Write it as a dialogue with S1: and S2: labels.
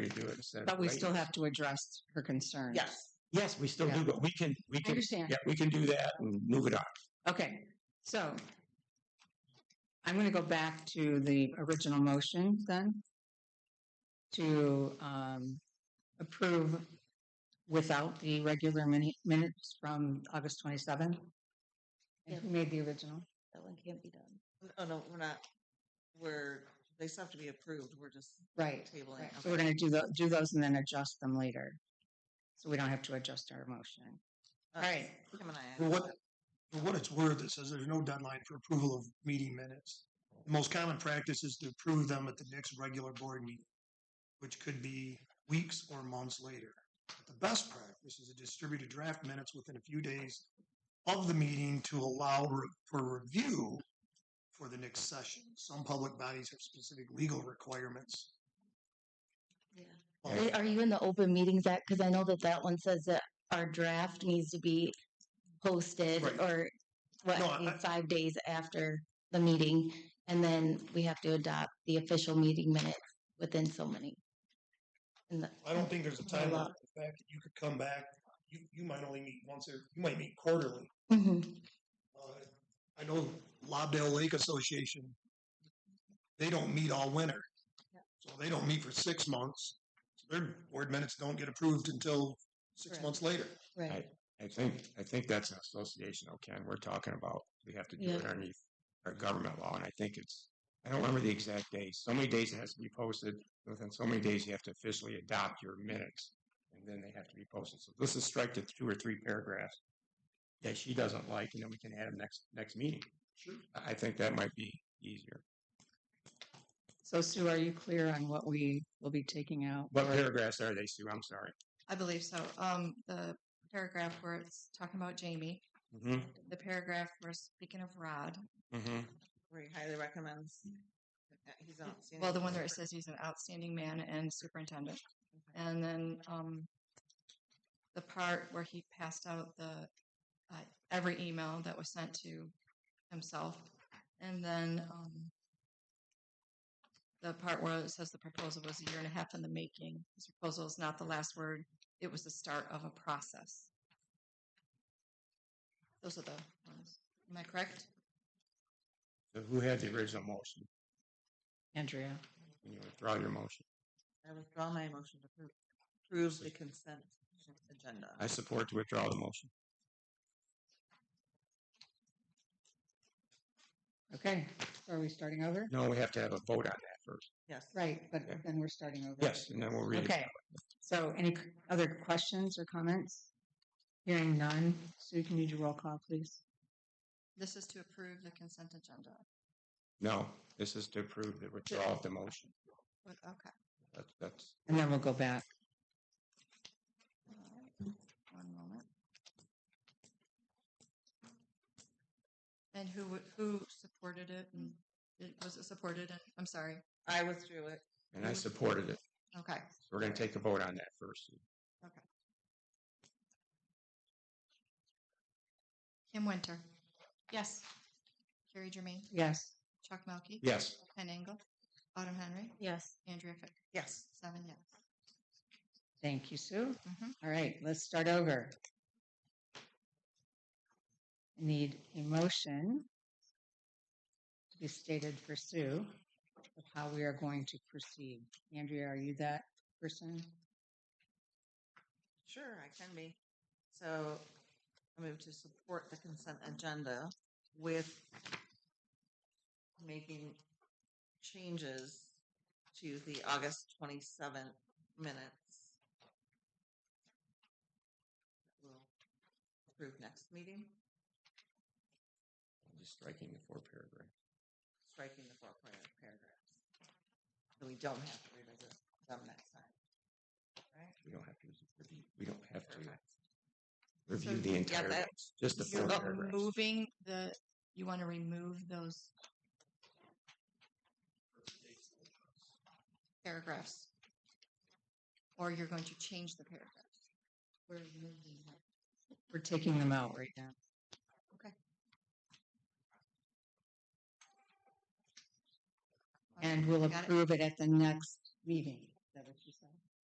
S1: we do it instead of.
S2: But we
S1: waiting.
S2: still have to address her concerns.
S1: Yes, yes, we still do,
S2: Yeah.
S1: go. we can, we
S2: I
S1: can,
S2: understand.
S1: yeah, we can do that and move it on.
S2: Okay, so I'm going to go back to the original motion then to um, approve without the regular mini- minutes from August 27th. And who made the original?
S3: That one can't be done. Oh, no, we're not, we're, they still have to be approved. We're just
S2: Right.
S3: tabling.
S2: Right, So
S3: Okay.
S2: we're going to do the, do those and then adjust them later. So we don't have to adjust our motion.
S3: Uh,
S2: right.
S3: Kim and I.
S4: For what, for what it's worth, it says there's no deadline for approval of meeting minutes. The most common practice is to approve them at the next regular board meeting, which could be weeks or months later. But The best practice is to distribute a draft minutes within a few days of the meeting to allow re- for review for the next session. Some public bodies have specific legal requirements.
S3: Yeah.
S4: Well,
S5: Eh, Are are you in the open meetings act? Because I know that that one says that our draft needs to be posted
S4: Right.
S5: or what,
S4: No, I-
S5: five days after the meeting. And then we have to adopt the official meeting minutes within so many. And the-
S4: I don't think there's a
S5: By
S4: time
S5: law.
S4: limit. The fact that you could come back, you, you might only meet once or you might meet quarterly.
S5: Mhm.
S4: Uh, I know Lobdell Lake Association, they don't meet all winter. So they don't meet for six months. So Their board minutes don't get approved until six
S3: Correct.
S4: months later.
S5: Right.
S1: I think, I think that's an association, okay, and we're talking about, we have to do
S5: Yeah.
S1: it underneath our government law, and I think it's, I don't remember the exact days, so many days it has to be posted, within so many days you have to officially adopt your minutes, and then they have to be posted, so this is strike the two or three paragraphs that she doesn't like, and then we can add them next, next meeting.
S4: Sure.
S1: I- I think that might be easier.
S2: So Sue, are you clear on what we will be taking out?
S1: What
S2: or-
S1: paragraphs are they, Sue? I'm sorry.
S6: I believe so. Um, the paragraph where it's talking about Jamie,
S1: Mm-hmm,
S6: the paragraph where it's speaking of Rod,
S1: mm-hmm.
S3: We highly recommends. uh, He's on.
S6: well, the one where it says he's an outstanding man and superintendent, and then um, the part where he passed out the uh, every email that was sent to himself, and then um, the part where it says the proposal was a year and a half in the making. This proposal is not the last word; it was the start of a process. Those are the ones. Am I correct?
S1: So who had the original motion?
S2: Andrea?
S1: Can you withdraw your motion?
S3: I withdraw my motion to approve, approve the consent agenda.
S1: I support to withdraw the motion.
S2: Okay, so are we starting over?
S1: No, we have to have a vote on that first.
S3: Yes.
S2: Right, but
S1: Okay.
S2: then we're starting over.
S1: Yes, and then we'll read it.
S2: Okay, so any c- other questions or comments? Hearing none, Sue, can you do roll call, please?
S6: This is to approve the consent agenda.
S1: No, this is to approve the withdrawal of the motion.
S6: What- Okay.
S1: That, that's,
S2: And then we'll go back.
S6: All right. One moment. And who w- who supported it? And it, was it supported? And, I'm sorry.
S3: I withdrew it.
S1: and I supported it.
S6: Okay.
S1: So we're gonna take a vote on that first.
S6: Kim Winter. Yes. Carrie Germain.
S2: Yes,
S6: Chuck Melkey.
S1: Yes,
S6: Ken Engel. Autumn Henry.
S5: Yes.
S6: Andrea Fick.
S3: Yes.
S6: Seven yes.
S2: thank you, Sue.
S6: Mhm.
S2: All right, let's start over. Need a motion to be stated for Sue of how we are going to proceed. Andrea, are you that person?
S3: Sure, I can be. So I move to support the consent agenda with making changes to the August 27th minutes. We'll approve next meeting,
S1: just striking the four paragraph.
S3: striking the four par- paragraphs. So we don't have to revisit them next time.
S1: We don't have to, we don't have to
S3: Perfect.
S1: review
S6: So,
S1: the
S6: yeah,
S1: entire,
S3: that-
S1: minutes, just the
S6: You're
S1: four paragraphs.
S6: moving the. You want to remove those paragraphs, or you're going to change the paragraphs. We're removing them.
S2: We're taking them out right now.
S6: Okay.
S2: And we'll
S6: Got it.
S2: approve it at the next meeting. Is that what you said?